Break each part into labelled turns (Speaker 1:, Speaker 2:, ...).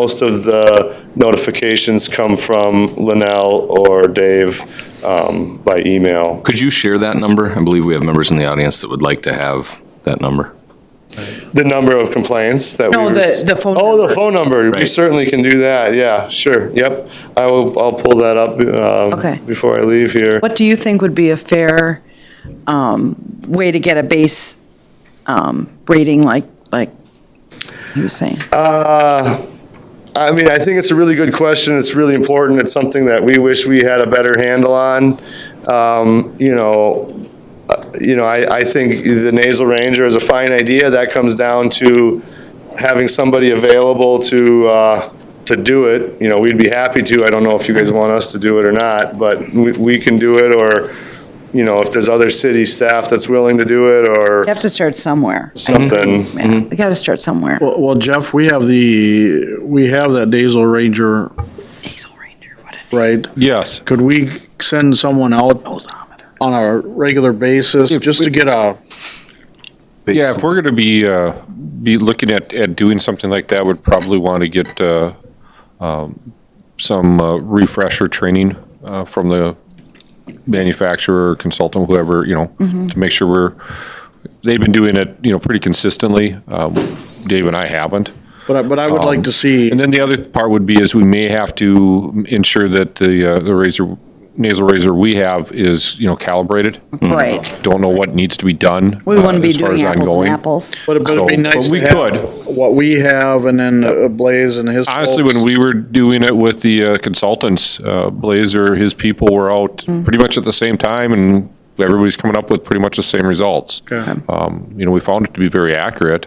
Speaker 1: Most of the notifications come from Linnell or Dave um, by email.
Speaker 2: Could you share that number? I believe we have members in the audience that would like to have that number.
Speaker 1: The number of complaints that we.
Speaker 3: No, the-
Speaker 1: rec-
Speaker 3: the phone
Speaker 1: Oh, the
Speaker 3: number.
Speaker 1: phone number. We
Speaker 2: Right.
Speaker 1: certainly can do that. Yeah, sure. Yep. I will, I'll pull that up um,
Speaker 3: Okay.
Speaker 1: before I leave here.
Speaker 3: What do you think would be a fair um, way to get a base um, rating like, like he was saying?
Speaker 4: Uh,
Speaker 1: I mean, I think it's a really good question. It's really important. It's something that we wish we had a better handle on. Um, you know, uh, you know, I, I think the nasal ranger is a fine idea. That comes down to having somebody available to uh, to do it. You know, we'd be happy to. I don't know if you guys want us to do it or not, but we, we can do it. Or, you know, if there's other city staff that's willing to do it or
Speaker 3: You have to start somewhere.
Speaker 1: something.
Speaker 3: Yeah,
Speaker 4: Mm-hmm.
Speaker 3: We got to start somewhere.
Speaker 5: Well, well, Jeff, we have the, we have that Diesel Ranger,
Speaker 3: Diesel Ranger, what a
Speaker 5: right?
Speaker 4: Yes.
Speaker 5: Could we send someone out
Speaker 3: ozometer.
Speaker 5: on a regular basis just to get a,
Speaker 4: Yeah, if we're going to be, uh, be looking at, at doing something like that, would probably want to get, uh, um, some uh, refresher training, uh, from the manufacturer, consultant, whoever, you
Speaker 3: Mm-hmm.
Speaker 4: know, to make sure we're, they've been doing it, you know, pretty consistently. Um, Dave and I haven't.
Speaker 5: but I, but I would like to see,
Speaker 4: Um, And then the other part would be is we may have to ensure that the, uh, the razor, nasal razor we have is, you know, calibrated.
Speaker 3: Right.
Speaker 4: Don't know what needs to be done.
Speaker 3: Mm-hmm. We
Speaker 4: uh,
Speaker 3: wouldn't be
Speaker 4: as far
Speaker 3: doing
Speaker 4: as
Speaker 3: apples and
Speaker 4: ongoing.
Speaker 3: apples.
Speaker 5: but it would be
Speaker 4: So-
Speaker 5: nice
Speaker 4: but
Speaker 5: to
Speaker 4: we
Speaker 5: have what we have and then uh, Blaze and his
Speaker 4: Honestly,
Speaker 5: folks.
Speaker 4: when we were doing it with the uh, consultants, uh, Blazer, his people were out pretty much at the same time, and everybody's coming up with pretty much the same results.
Speaker 5: Okay.
Speaker 4: Um, You know, we found it to be very accurate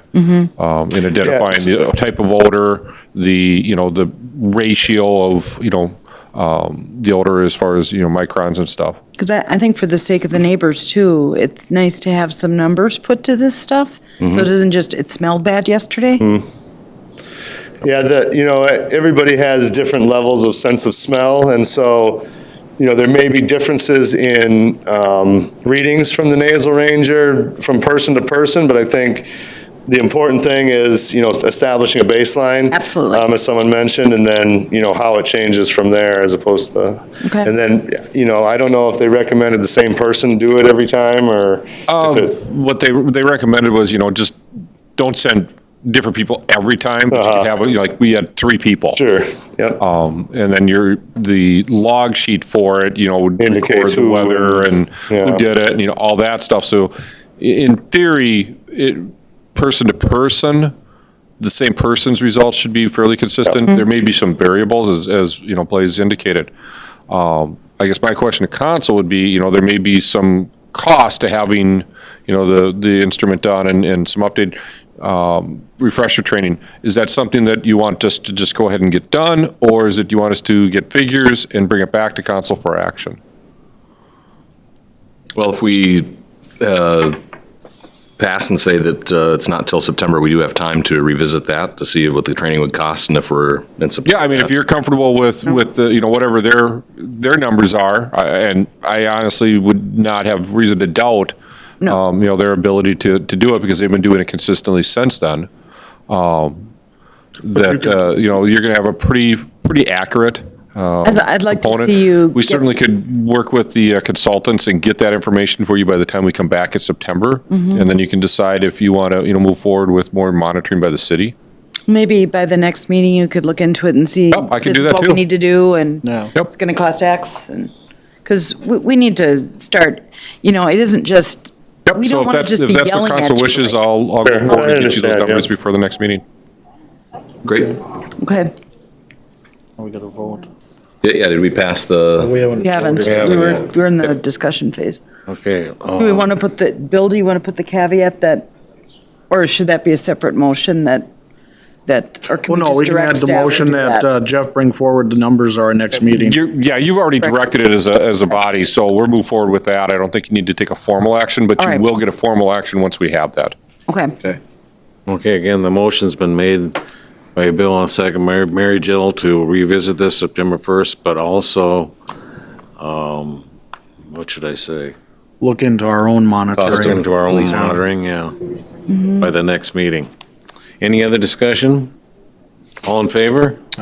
Speaker 4: um, in identifying
Speaker 1: Yes.
Speaker 4: the type of odor, the, you know, the ratio of, you know, um, the odor as far as, you know, microns and stuff.
Speaker 3: Because I, I think for the sake of the neighbors too, it's nice to have some numbers put to this stuff.
Speaker 4: Mm-hmm.
Speaker 3: So it isn't just, it smelled bad yesterday.
Speaker 1: Yeah, the, you know, everybody has different levels of sense of smell, and so, you know, there may be differences in um, readings from the nasal ranger from person to person, but I think the important thing is, you know, establishing a baseline.
Speaker 3: Absolutely.
Speaker 1: Um, As someone mentioned, and then, you know, how it changes from there as opposed to.
Speaker 3: Okay.
Speaker 1: And then, you know, I don't know if they recommended the same person do it every time, or if it.
Speaker 4: Um, What they, they recommended was, you know, just don't send different people every time, but you could have, you know, like, we had three people.
Speaker 1: Uh-huh. Sure, yep.
Speaker 4: Um, and then your the log sheet for it, you know, would record
Speaker 1: Indicates
Speaker 4: the
Speaker 1: who
Speaker 4: weather and
Speaker 1: Yeah.
Speaker 4: who did it, and you know all that stuff. So, i- in theory, it person to person, the same person's results should be fairly consistent. There may be some variables, as, as you know, Blaze indicated. Um, I guess my question to council would be, you know, there may be some cost to having, you know, the, the instrument done and, and some updated um, refresher training. Is that something that you want us to just go ahead and get done? Or is it you want us to get figures and bring it back to council for action?
Speaker 2: Well, if we uh, pass and say that uh, it's not till September, we do have time to revisit that, to see what the training would cost and if we're in September.
Speaker 4: Yeah, I mean, if you're comfortable with, with, the you know, whatever their, their numbers are, I- and I honestly would not have reason to doubt, um, you know, their ability to, to do it because they've been doing it consistently since then. um, That, uh, you know, you're going to have a pretty, pretty accurate
Speaker 3: I'd, I'd like to
Speaker 4: component.
Speaker 3: see you.
Speaker 4: We
Speaker 3: get-
Speaker 4: certainly could work with the uh, consultants and get that information for you by the time we come back in September.
Speaker 3: Mm-hmm.
Speaker 4: And then you can decide if you want to, you know, move forward with more monitoring by the city.
Speaker 3: Maybe by the next meeting, you could look into it and see.
Speaker 4: Yep, I could do
Speaker 3: This is
Speaker 4: that
Speaker 3: what we
Speaker 4: too.
Speaker 3: need to do and
Speaker 5: Yeah.
Speaker 4: Yep.
Speaker 3: it's going to cost X. And, because we, we need to start, you know, it isn't just,
Speaker 4: Yep,
Speaker 3: we
Speaker 4: so
Speaker 3: don't
Speaker 4: if
Speaker 3: want to
Speaker 4: that's,
Speaker 3: just
Speaker 4: if
Speaker 3: be
Speaker 4: that's what
Speaker 3: yelling at
Speaker 4: council
Speaker 3: you.
Speaker 4: wishes, I'll, I'll go
Speaker 1: Sure,
Speaker 4: forward
Speaker 1: I
Speaker 4: and get you those
Speaker 1: understand, yeah.
Speaker 4: numbers before the next meeting.
Speaker 2: Great.
Speaker 3: Okay,
Speaker 5: Oh, We got to vote.
Speaker 2: Yeah, yeah, did we pass
Speaker 5: We
Speaker 2: the,
Speaker 5: haven't.
Speaker 3: we haven't,
Speaker 5: voted.
Speaker 3: we were, we were in the discussion phase.
Speaker 6: Okay,
Speaker 3: Do
Speaker 4: um,
Speaker 3: we want to put the, Bill, do you want to put the caveat that, or should that be a separate motion that, that, or can
Speaker 5: Well,
Speaker 3: we
Speaker 5: no, we
Speaker 3: just
Speaker 5: can
Speaker 3: direct
Speaker 5: add
Speaker 3: staff to
Speaker 5: the
Speaker 3: do that?
Speaker 5: motion that uh, Jeff bring forward the numbers at our next meeting.
Speaker 4: You're, yeah, you've already directed it as a, as a body, so we'll move forward with that. I don't think you need to take a formal action, but
Speaker 3: All
Speaker 4: you
Speaker 3: right.
Speaker 4: will get a formal action once we have that.
Speaker 3: Okay,
Speaker 6: okay, again, the motion's been made by Bill and second Mary, Mary Jill to revisit this September 1st, but also, um, what should I say?
Speaker 5: Look into our own
Speaker 6: Cost
Speaker 5: monitoring.
Speaker 6: into our own monitoring, yeah, by the next meeting. Any other discussion? All in favor?